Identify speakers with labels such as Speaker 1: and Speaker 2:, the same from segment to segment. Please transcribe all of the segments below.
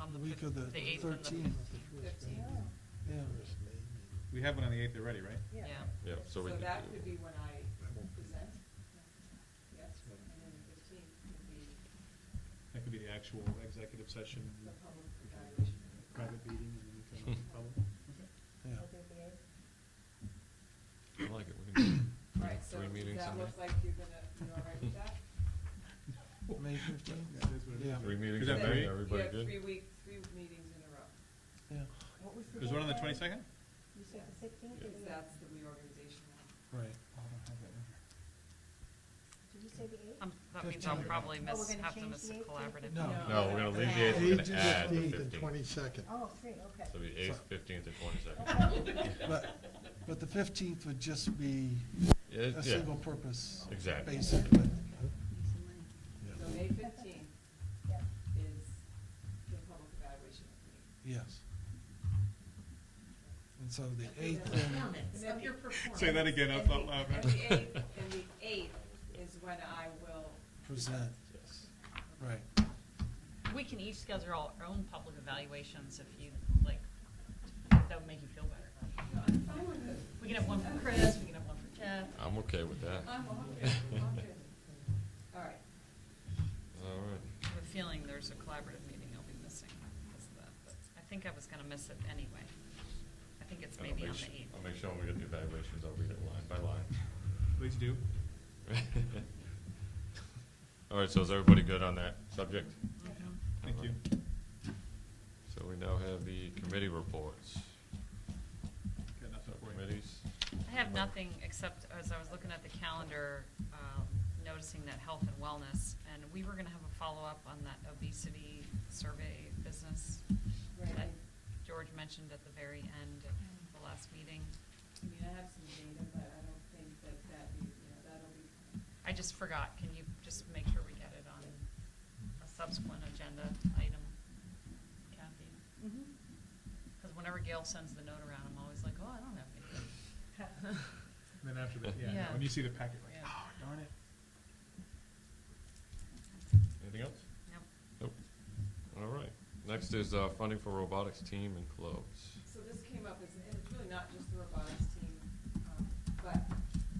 Speaker 1: on the.
Speaker 2: Week of the
Speaker 1: The eighth and the-
Speaker 2: thirteenth.
Speaker 3: Yeah.
Speaker 2: Yeah,
Speaker 4: We have one on the eighth already, right?
Speaker 3: Yeah.
Speaker 1: Yeah.
Speaker 5: Yeah, so we.
Speaker 3: So
Speaker 5: can-
Speaker 3: that could be when I present, yes, and then the fifteenth could be
Speaker 4: That could be the actual executive session,
Speaker 3: the public evaluation.
Speaker 4: private meeting, and then we come
Speaker 2: Hmm.
Speaker 4: to public.
Speaker 2: yeah.
Speaker 5: I like it, we can do
Speaker 3: All right, so
Speaker 5: Three
Speaker 3: does
Speaker 5: meetings
Speaker 3: that
Speaker 5: in
Speaker 3: look
Speaker 5: there.
Speaker 3: like you're gonna, you all right with that?
Speaker 2: May fifteenth,
Speaker 4: That is what it is.
Speaker 2: Yeah.
Speaker 5: three meetings,
Speaker 4: Is that
Speaker 5: in there,
Speaker 4: very-
Speaker 5: everybody
Speaker 3: Yeah, three
Speaker 5: good?
Speaker 3: week, three meetings in a row,
Speaker 2: yeah.
Speaker 6: What was the
Speaker 4: There's one on the
Speaker 6: deadline?
Speaker 4: twenty-second?
Speaker 6: You said the sixteenth,
Speaker 3: because that's the reorganization one.
Speaker 2: Right.
Speaker 6: did you say the eighth?
Speaker 1: Um, That means
Speaker 2: Fifteen.
Speaker 1: I'll probably
Speaker 6: Oh, we're
Speaker 1: miss,
Speaker 6: gonna
Speaker 1: have to
Speaker 6: change
Speaker 1: miss
Speaker 6: the
Speaker 1: a
Speaker 6: eighth too?
Speaker 1: collaborative.
Speaker 2: No.
Speaker 5: No, we're gonna leave the eighth, we're gonna add the fifteenth.
Speaker 2: twenty-second.
Speaker 6: Oh, three, okay.
Speaker 5: So the eighth, fifteenth, and twenty-second.
Speaker 6: Okay.
Speaker 2: But, but the fifteenth would just be a
Speaker 5: Uh, Yeah,
Speaker 2: single purpose.
Speaker 5: Exactly.
Speaker 2: Basically.
Speaker 3: So May fifteenth
Speaker 6: Yep.
Speaker 3: is the public evaluation meeting.
Speaker 2: Yes. And so the eighth then,
Speaker 3: And then your performance.
Speaker 4: Say that again out
Speaker 3: And the-
Speaker 4: loud, Robert.
Speaker 3: And the eighth, and the eighth is when I will,
Speaker 2: present,
Speaker 5: Yes.
Speaker 2: right.
Speaker 1: We can each schedule our own public evaluations if you, like, that would make you feel better.
Speaker 3: no, I'm fine with it.
Speaker 1: We can have one for Chris, we can have one for Jeff.
Speaker 5: I'm okay with that.
Speaker 3: I'm all good, I'm good. All right,
Speaker 5: All right.
Speaker 1: I have a feeling there's a collaborative meeting I'll be missing because of that, but I think I was gonna miss it anyway. I think it's
Speaker 5: I'll
Speaker 1: maybe
Speaker 5: make
Speaker 1: on the
Speaker 5: su-
Speaker 1: eighth.
Speaker 5: I'll make sure when we get the evaluations, I'll read it line by line.
Speaker 4: Please do.
Speaker 5: All right, so is everybody good on that subject?
Speaker 1: Mhm.
Speaker 4: Thank you.
Speaker 5: So we now have the committee reports,
Speaker 4: Got nothing for you.
Speaker 5: committees.
Speaker 1: I have nothing except as I was looking at the calendar, um, noticing that health and wellness, and we were gonna have a follow-up on that obesity survey business that
Speaker 3: right.
Speaker 1: George mentioned at the very end of the last meeting.
Speaker 3: I mean, I have some data, but I don't think that that, be- you know, that'll be,
Speaker 1: I just forgot, can you just make sure we get it on a subsequent agenda item, Kathy? Because whenever Gail sends the note around, I'm always like, oh, I don't have anything.
Speaker 4: Then after that, yeah,
Speaker 1: Yeah.
Speaker 4: when you see the packet, like,
Speaker 1: Yeah.
Speaker 4: oh, darn it.
Speaker 5: Anything else?
Speaker 1: Nope.
Speaker 5: Nope. All right. Next is uh, funding for robotics team and clubs.
Speaker 3: so this came up, as- and it's really not just the robotics team, um, but,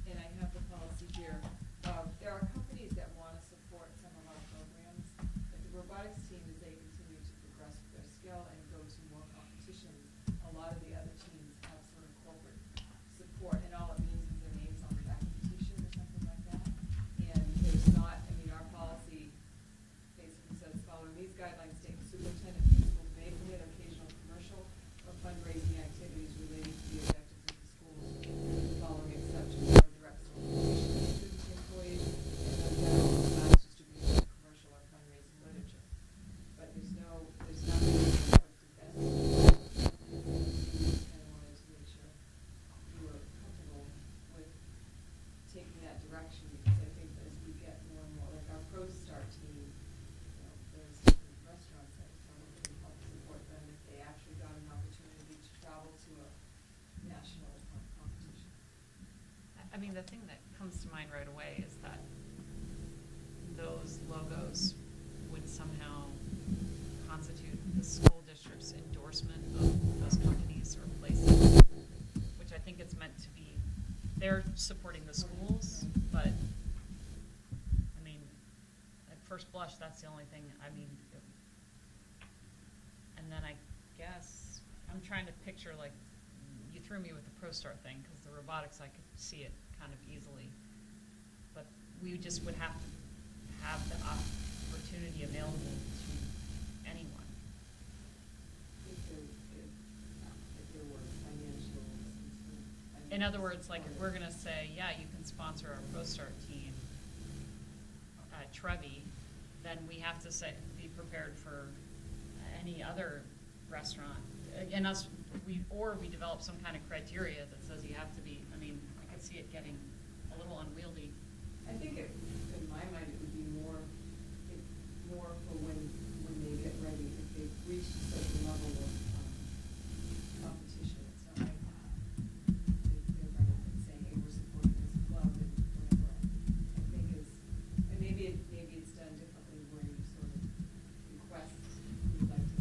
Speaker 3: and I have the policy here. Um, There are companies that want to support some of our programs, but the robotics team, as they continue to progress with their skill and go to more competitions, a lot of the other teams have sort of corporate support, and all it means is their names on the back of the t-shirt or something like that. And there's not, I mean, our policy basically says, following these guidelines, state superintendent principal may permit occasional commercial or fundraising activities related to the objectives of the school, with the following exceptions or direct solicitation of students, employees, and no general class distribution of commercial or fundraising literature. But there's no, there's nothing that supports that. And I wanted to make sure you were comfortable with taking that direction, because I think as we get more and more, like our Pro Star team, you know, there's different restaurants that come and can help support them if they actually got an opportunity to travel to a national competition.
Speaker 1: I- I mean, the thing that comes to mind right away is that those logos would somehow constitute the school district's endorsement of those companies or places, which I think it's meant to be, they're supporting the schools, but, I mean, at first blush, that's the only thing, I mean, and then I guess, I'm trying to picture like, you threw me with the ProStar thing, because the robotics, I could see it kind of easily. But we just would have to have the opportunity available to anyone.
Speaker 3: If there, if, if there were financial.
Speaker 1: In other words, like, if we're gonna say, yeah, you can sponsor our ProStar team, uh, Trevi, then we have to say, be prepared for any other restaurant. And us, we, or we develop some kind of criteria that says you have to be, I mean, I could see it getting a little unwieldy.
Speaker 3: I think it, in my mind, it would be more um, uh,